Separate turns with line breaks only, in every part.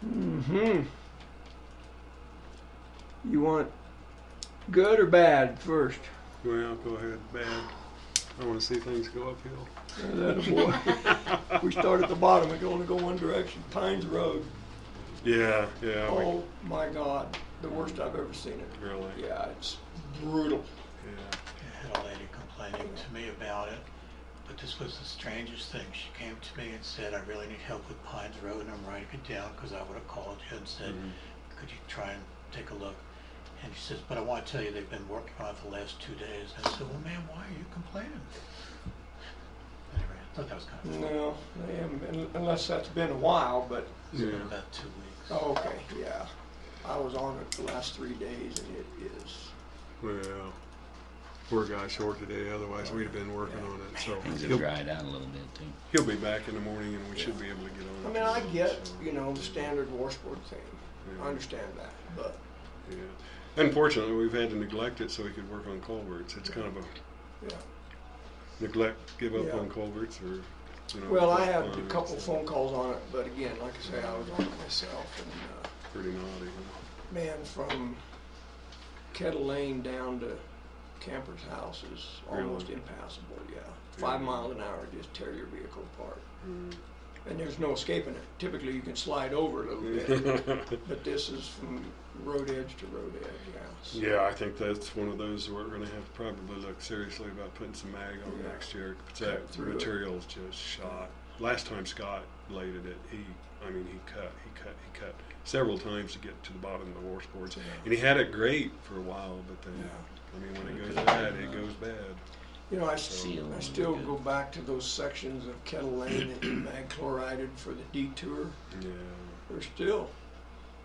hmm You want good or bad first?
Well, go ahead, bad. I want to see things go uphill.
Attaboy. we start at the bottom. We can only go one direction. Pines Road.
Yeah, yeah. we-
Oh my God, the worst I've ever seen it.
Really?
Yeah, it's brutal.
Yeah.
I had a lady complaining to me about it, but this was the strangest thing. She came to me and said, I really need help with Pines Road, and I'm writing it down because I would have called you and said,
Mm-hmm.
could you try and take a look? And she says, but I want to tell you, they've been working on it for the last two days. And I said, well, ma'am, why are you complaining? Anyway, I thought that was kind of funny.
No, they haven't been, unless that's been a while, but
It's been
Mm-hmm. Yeah.
about two weeks.
oh, okay, yeah. I was on it the last three days, and it is.
Well, poor guy short today. Otherwise, we'd have been working
Yeah.
on it. So
Things have
he'll,
dried out a little bit too.
he'll be back in the morning, and we should be able to get on.
I
it
mean, I
tomorrow,
get
so,
you know the standard war sport thing.
Yeah.
I understand that, but
Yeah. Unfortunately, we've had to neglect it so we could work on culverts. It's kind of a
yeah.
neglect, give up
Yeah.
on culverts, or you know.
Well, I
give up
had a
on it.
couple phone calls on it, but again, like I say, I was on it myself, and uh,
Pretty naughty.
man, from Kettle Lane down to Camper's House is almost
Really?
impassable. Yeah, five
Yeah.
miles an hour just tear your vehicle apart,
Mm.
and there's no escaping it. Typically, you can slide over a little bit,
Huh?
but this is from road edge to road edge. Yeah. so-
Yeah, I think that's one of those we're gonna have to probably look seriously about putting some mag on
Yeah.
next year. 'cause
Cut
That
through it.
material's just shot. Last time Scott bladed it, he, I mean, he cut, he cut, he cut several times to get to the bottom of the war sports.
Yeah.
And he had it great for a while, but then,
Yeah.
I mean, when it
It
goes
could've
bad,
been,
it
uh,
goes bad.
You know, I,
Seal
still I
and
still
good.
go back to those sections of Kettle Lane that you mag chlorided for the detour.
Yeah,
They're still.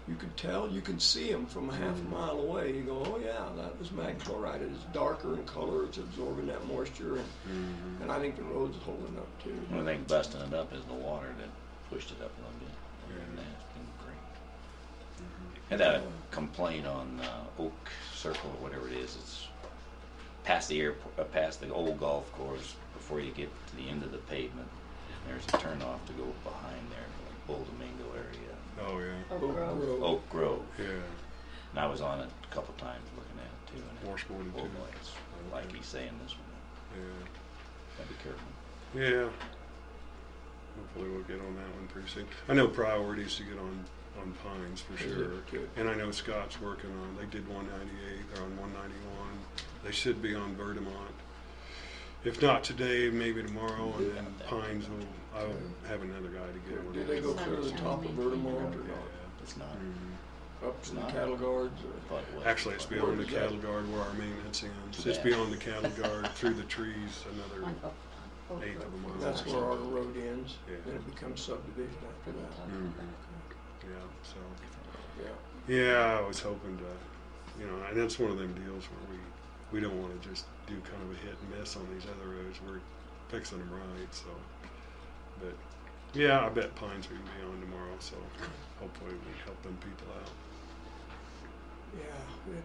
You can tell, you can see them from a half a mile away. You go, oh yeah, that was mag chloride. It's darker in color. It's absorbing that moisture, and,
Mhm.
and I think the road's holding up too.
One thing busting it up is the water that pushed it up a little bit. And that's been great.
Mm-hmm.
Had a complaint on uh, Oak Circle or whatever it is. It's past the airport, uh, past the old golf course before you get to the end of the pavement. There's a turnoff to go behind there, like Bull Domingo area,
oh, yeah,
Oak Grove.
Oak Grove.
yeah,
And I was on it a couple times looking at it too. And it-
More sporty,
Oh
too.
boy, it's like he's saying this one.
yeah.
Gotta be
Yeah.
careful.
Hopefully we'll get on that one pretty soon. I know priorities to get on, on Pines for
Good,
sure.
good.
And I know Scott's working on, they did one ninety-eight, they're on one ninety-one. They should be on Verdamont. If not today, maybe tomorrow, and then Pines will, I'll have another guy to get one.
Do they go
on.
clear to the top of Vertimont or
Yeah.
not?
It's not.
Mhm.
Up to the cattle guards? Or,
But it was-
Actually, it's
Where
beyond the
does that-
cattle guard where our maintenance ends. It's
Yeah.
beyond the cattle guard, through the trees, another
On Oak- on Oak
eighth
Grove.
of a mile.
that's where our road ends.
Yeah.
Then it becomes subdivision after that.
Mhm. Yeah, so.
Yeah.
Yeah, I was hoping to, you know, and that's one of them deals where we, we don't want to just do kind of a hit and miss on these other roads. We're fixing them right, so. But yeah, I bet Pines we can be on tomorrow, so hopefully we can help them people out.
Yeah.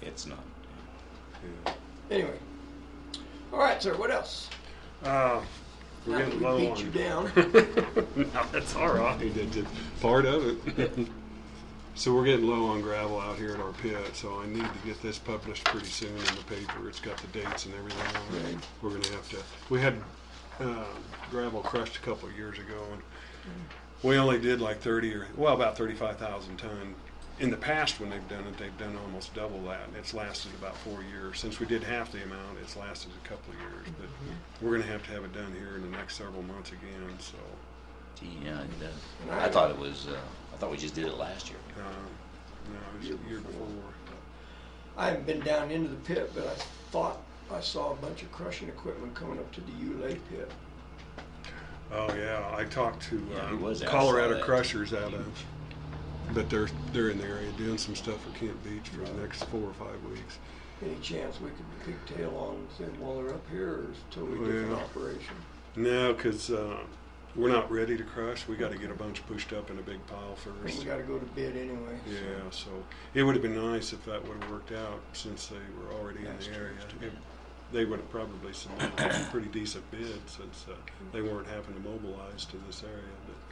It's
It's not.
Yeah.
anyway. All right, sir. What else?
Uh,
Not
we're
that
getting
we
low
beat
on.
you down.
no, that's all right. It's just part of it. so we're getting low on gravel out here at our pit, so I need to get this published pretty soon in the paper. It's got the dates and everything on it.
Right.
We're gonna have to. We had uh, gravel crushed a couple of years ago, and we only did like 30 or well about 35,000 ton. In the past, when they've done it, they've done almost double that, and it's lasted about four years. Since we did half the amount, it's lasted a couple of years. But we're gonna have to have it done here in the next several months again. So.
Gee, yeah, it does.
Right.
I thought it was. Uh, I thought we just did it last year.
Uh, no, it was the year before.
I haven't been down into the pit, but I thought I saw a bunch of crushing equipment coming up to the Ulay pit.
Oh yeah, I talked to
Yeah,
uh,
he was out, saw
Colorado
that.
Crushers out of, but they're they're in the area doing some stuff for Camp Beach for the next four or five weeks.
Any chance we could pigtail on them while they're up here, or is it a totally different
Well.
operation?
No, because uh, we're not ready to crush. We got to get a bunch pushed up in a big pile
We
first.
gotta go to bid anyway. so-
Yeah, so it would have been nice if that would have worked out since they were already in
That's
the
true,
area.
that's
It- They would have probably submitted a pretty decent bid since uh, they weren't having to mobilize to this area, but.